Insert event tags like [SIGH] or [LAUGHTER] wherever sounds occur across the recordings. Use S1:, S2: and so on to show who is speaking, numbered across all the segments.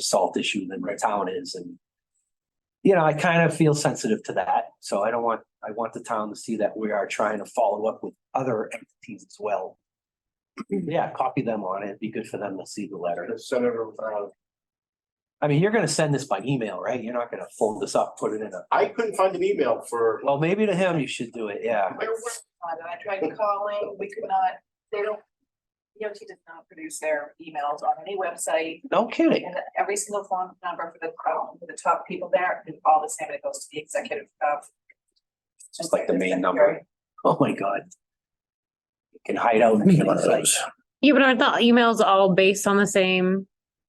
S1: salt issue than the town is and. You know, I kind of feel sensitive to that, so I don't want, I want the town to see that we are trying to follow up with other entities as well.
S2: Mm-hmm.
S1: Yeah, copy them on it. It'd be good for them to see the letter.
S3: Senator, uh,
S1: I mean, you're gonna send this by email, right? You're not gonna fold this up, put it in a,
S3: I couldn't find an email for,
S1: well, maybe to him you should do it, yeah.
S4: We're working on it. I tried calling, we could not, they don't. DOT does not produce their emails on any website
S1: No kidding.
S4: and every single phone number for the, um, for the top people there is all the same. It goes to the executive. uh,
S1: Just like the main
S4: executive
S1: number.
S4: secretary.
S1: Oh, my God. You Can hide out.
S2: We need one of those.
S5: Yeah, but aren't the emails all based on the same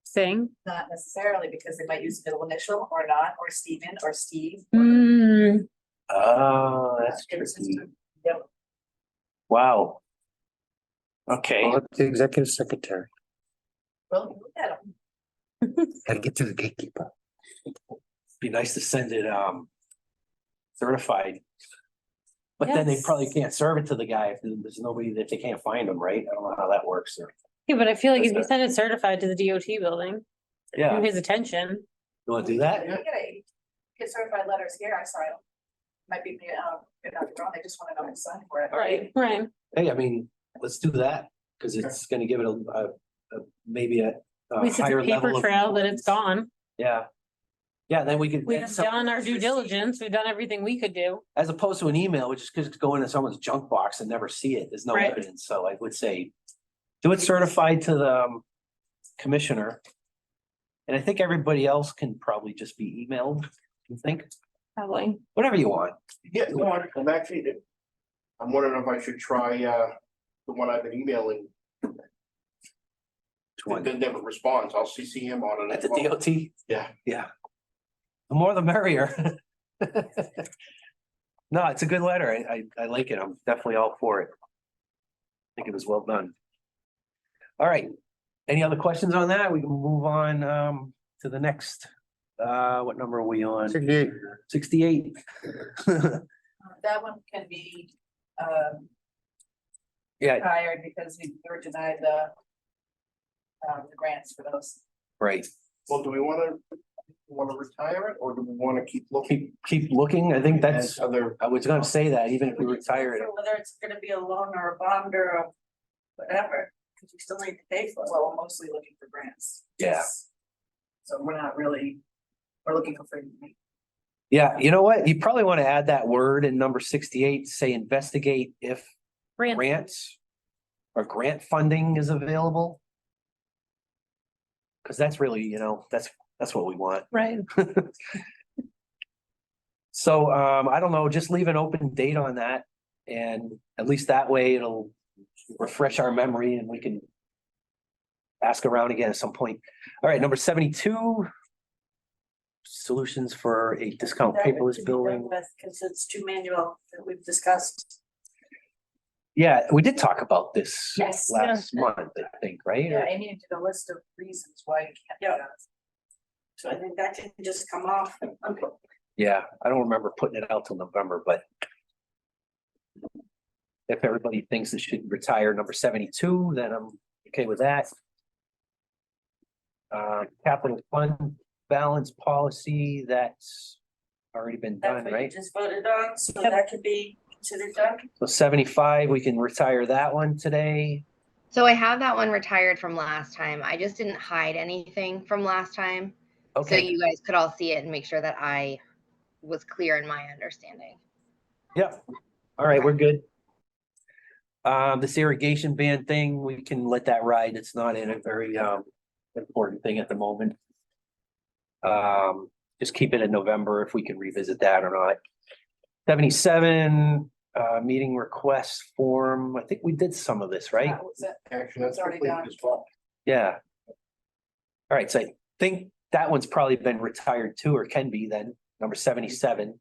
S5: thing?
S4: Not necessarily because they might use middle initial or not, or Stephen or Steve. or-
S5: Hmm,
S1: Oh, that's tricky.
S4: Yep.
S1: Wow. Okay,
S2: Call it The executive secretary,
S4: Well, look at 'em.
S2: gotta get to the gatekeeper.
S1: be nice to send it, um, certified. But then they
S5: Yes.
S1: probably can't serve it to the guy if there's nobody that they can't find them, right? I don't know how that works. or-
S5: yeah, but I feel like if you
S1: That's
S5: send it certified to the DOT building,
S1: Yeah,
S5: to
S1: you
S5: his attention,
S1: wanna do that?
S4: We Get a- get certified letters here. I saw it. Might be, uh, if I'm wrong, they just want to know who signed for it.
S5: right, right,
S1: Hey, I mean, let's do that, because it's gonna give it a, a, a- maybe a. a
S5: at least it's a
S1: higher
S5: paper
S1: level of-
S5: trail that it's gone.
S1: Yeah. Yeah, then we could.
S5: We've done our due
S1: Receipt.
S5: diligence, we've done everything we could do.
S1: As opposed to an email, which is just go into someone's junk box and never see it, there's no
S5: Right.
S1: evidence, so I would say. Do it certified to the um, commissioner. And I think everybody else can probably just be emailed, you think,
S5: Probably.
S1: whatever you want,
S3: yeah, no, I- I'm actually. I'm wondering if I should try, uh, the one I've been emailing,
S1: to
S3: that
S1: one,
S3: that never responds, I'll CC him on it.
S1: at
S3: as
S1: the
S3: well.
S1: DOT.
S3: Yeah.
S1: Yeah. The more the merrier. [LAUGHS] No, it's a good letter, I, I, I like it, I'm definitely all for it. I think it was well done. All right, any other questions on that? We can move on, um, to the next, uh, what number are we on?
S2: Sixty-eight.
S1: Sixty-eight. [LAUGHS]
S4: Uh, That one can be, um,
S1: Yeah,
S4: hired because we were denied the. Um, the grants for those.
S1: right,
S3: Well, do we wanna, wanna retire it, or do we wanna keep looking?
S1: keep, keep looking, I think that's,
S3: at Other,
S1: I was gonna say that, even if we retire it.
S4: So Whether it's gonna be a loan or a bond or a whatever, cause you still need to pay for it. Well, we're mostly looking for grants.
S1: Yeah.
S4: So we're not really, we're looking for free money.
S1: Yeah, you know what, you probably wanna add that word in number sixty-eight, say investigate if
S5: Ran,
S1: grants or grant funding is available. Cause that's really, you know, that's, that's what we want.
S5: right,
S1: So, um, I don't know, just leave an open date on that and at least that way it'll refresh our memory and we can ask around again at some point. All right, number seventy-two. Solutions for a discount paperless billing.
S4: Cause it's too manual that we've discussed.
S1: Yeah, we did talk about this
S4: Yes.
S1: last month, I think, right?
S4: Yeah, I needed a list of reasons why you can't do that. So I think that can just come off.
S1: Yeah, I don't remember putting it out till November, but. If everybody thinks it should retire number seventy-two, then I'm okay with that. Uh, capital fund balance policy, that's already been done,
S4: That's what you
S1: right?
S4: just voted on, so
S5: Yep.
S4: that could be considered done.
S1: So seventy-five, we can retire that one today.
S6: So I have that one retired from last time. I just didn't hide anything from last time. So
S1: Okay,
S6: you guys could all see it and make sure that I was clear in my understanding.
S1: yep. All right, we're good. Um, this irrigation ban thing, we can let that ride. It's not in a very, um, important thing at the moment. Um, just keep it in November if we can revisit that or not. Seventy-seven, uh, meeting request form. I think we did some of this, right?
S4: That was it.
S3: action, that's
S4: It's already
S3: completed
S4: done.
S3: as well.
S1: Yeah. All right, so I think that one's probably been retired too, or can be then, number seventy-seven.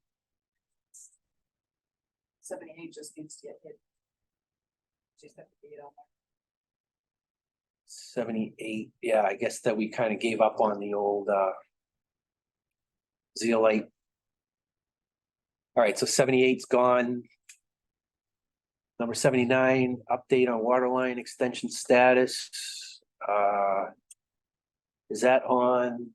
S4: Seventy-eight just needs to get hit. Just have to be, you know,
S1: Seventy-eight, yeah, I guess that we kind of gave up on the old, uh. Zeolite. All right, so seventy-eight's gone. Number seventy-nine, update on water line extension status, uh. Is that on